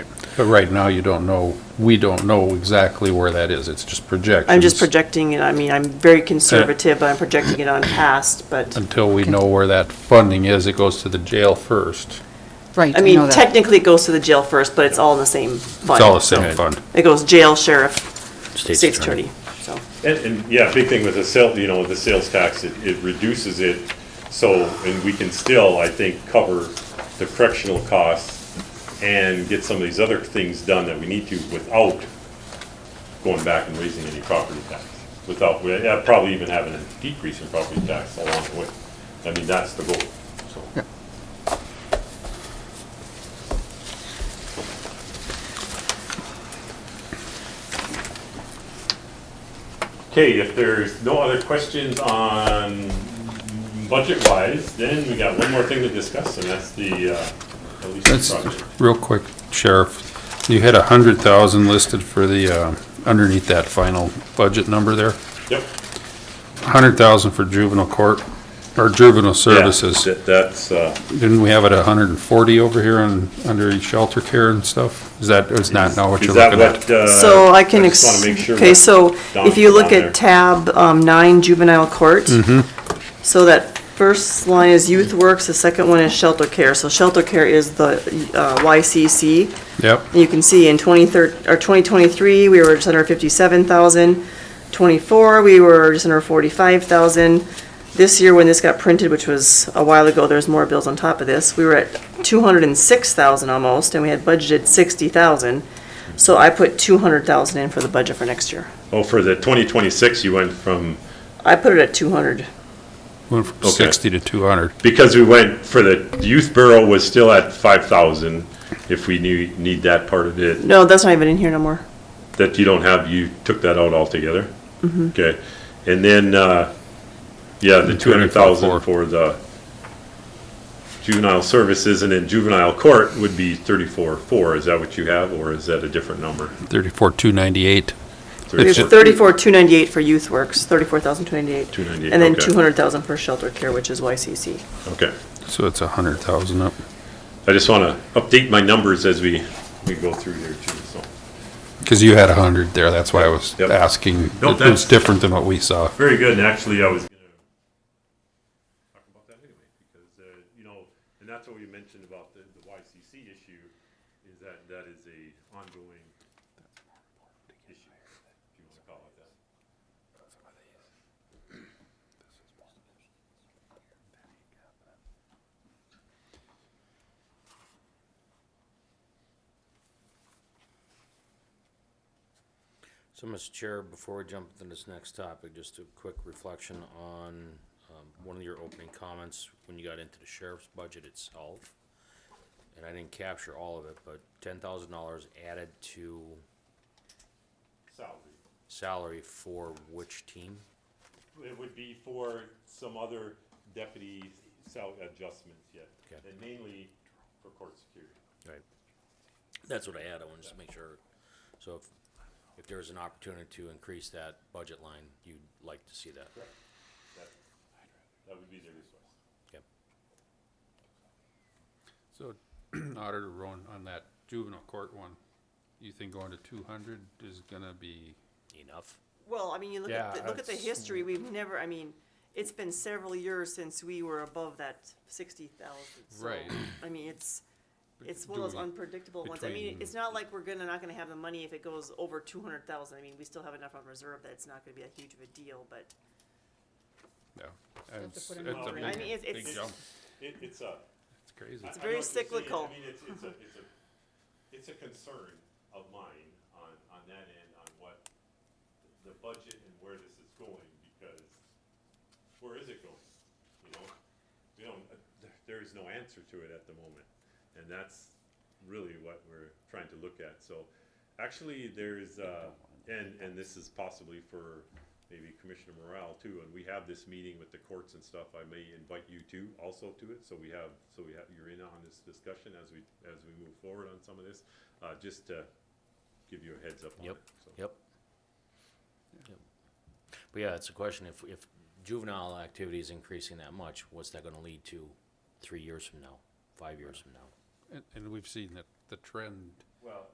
But right now, you don't know, we don't know exactly where that is. It's just projections. I'm just projecting it, I mean, I'm very conservative, but I'm projecting it on past, but, Until we know where that funding is, it goes to the jail first. Right, I I mean, know that. technically it goes to the jail first, but it's all in the same fund. It's all the same fund. It goes jail, sheriff, state's attorney, so. And, and, yeah, big thing with the sale, you know, with the sales tax, it, it reduces it, so, and we can still, I think, cover the correctional costs and get some of these other things done that we need to without going back and raising any property tax, without, we- uh, probably even having a decrease in property tax along the way. I mean, that's the goal, so. Okay, if there's no other questions on budget-wise, then we got one more thing to discuss, and that's the, uh, Alicia That's, project. real quick, Sheriff, you had a hundred thousand listed for the, uh, underneath that final budget number there. Yep. Hundred thousand for juvenile court, or juvenile services. Yeah, that- That's, uh, Didn't we have it a hundred and forty over here on, under shelter care and stuff? Is that, is not now what is you're that looking at? what, uh? So I can, just wanna make ex- sure okay, what- so down- if you look down there. at tab um, nine, juvenile court. So that first line is youth works, the second one is shelter care. So shelter care is the uh, YCC. Yep, And you can see in 23, or 2023, we were just under 57,000. '24, we were just under 45,000. This year, when this got printed, which was a while ago, there's more bills on top of this, we were at 206,000 almost, and we had budgeted 60,000. So I put 200,000 in for the budget for next year. Oh, for the twenty twenty-six, you went from, I put it at 200. went from Okay. sixty to two hundred. because we went, for the youth bureau was still at five thousand, if we need, need that part of it, No, that's not even in here no more. that you don't have, you took that out altogether? Mm-hmm. Okay, and then, uh, yeah, the two hundred thousand 34. for the juvenile services, and then juvenile court would be thirty-four, four, is that what you have, or is that a different number? Thirty-four, two ninety-eight. We have 34? 34,298 for youth works, 34,298. 298, And then okay. 200,000 for shelter care, which is YCC. Okay, So it's a hundred thousand up. I just wanna update my numbers as we, we go through here too, so. Cause you had a hundred there, that's why I was Yep. asking. No, It was that's- different than what we saw. Very good, and actually, I was gonna talk about that anyway, because, uh, you know, and that's what we mentioned about the, the YCC issue, is that that is a ongoing issue, if you wanna call it that. So, Mr. Chair, before we jump into this next topic, just a quick reflection on um, one of your opening comments when you got into the sheriff's budget itself. And I didn't capture all of it, but ten thousand dollars added to Salary, salary for which team? it would be for some other deputy sal- adjustments yet, Okay. and mainly for court security. Right. That's what I had, I wanted to make sure. So if, if there's an opportunity to increase that budget line, you'd like to see that. That would be their resource. Okay. So Auditor Rowan, on that juvenile court one, you think going to two hundred is gonna be? Enough? Well, I mean, you look at, Yeah, the- look at the that's- history, we've never, I mean, it's been several years since we were above that sixty thousand, so. Right. I mean, it's, it's one of those do we- unpredictable ones, I mean, between- it's not like we're gonna, not gonna have the money if it goes over two hundred thousand, I mean, we still have enough on reserve that it's not gonna be a huge of a deal, but, Yeah. have to It's put it's in a more. big, I mean, it's, big it's, jump. It, it's a, It's crazy. I- I know very what you're saying. cyclical. I mean, it's, it's a, it's a, it's a concern of mine on, on that end, on what the budget and where this is going, because where is it going? You know, we don't, there- there is no answer to it at the moment, and that's really what we're trying to look at, so. Actually, there's, uh, and, and this is possibly for maybe Commissioner Morale too, and we have this meeting with the courts and stuff, I may invite you too, also to it, so we have, so we have, you're in on this discussion as we, as we move forward on some of this, uh, just to give you a heads up on it. Yep, so. yep. Yep. But yeah, it's a question, if, if juvenile activity is increasing that much, what's that gonna lead to three years from now, five years from now? And, and we've seen that the trend Well,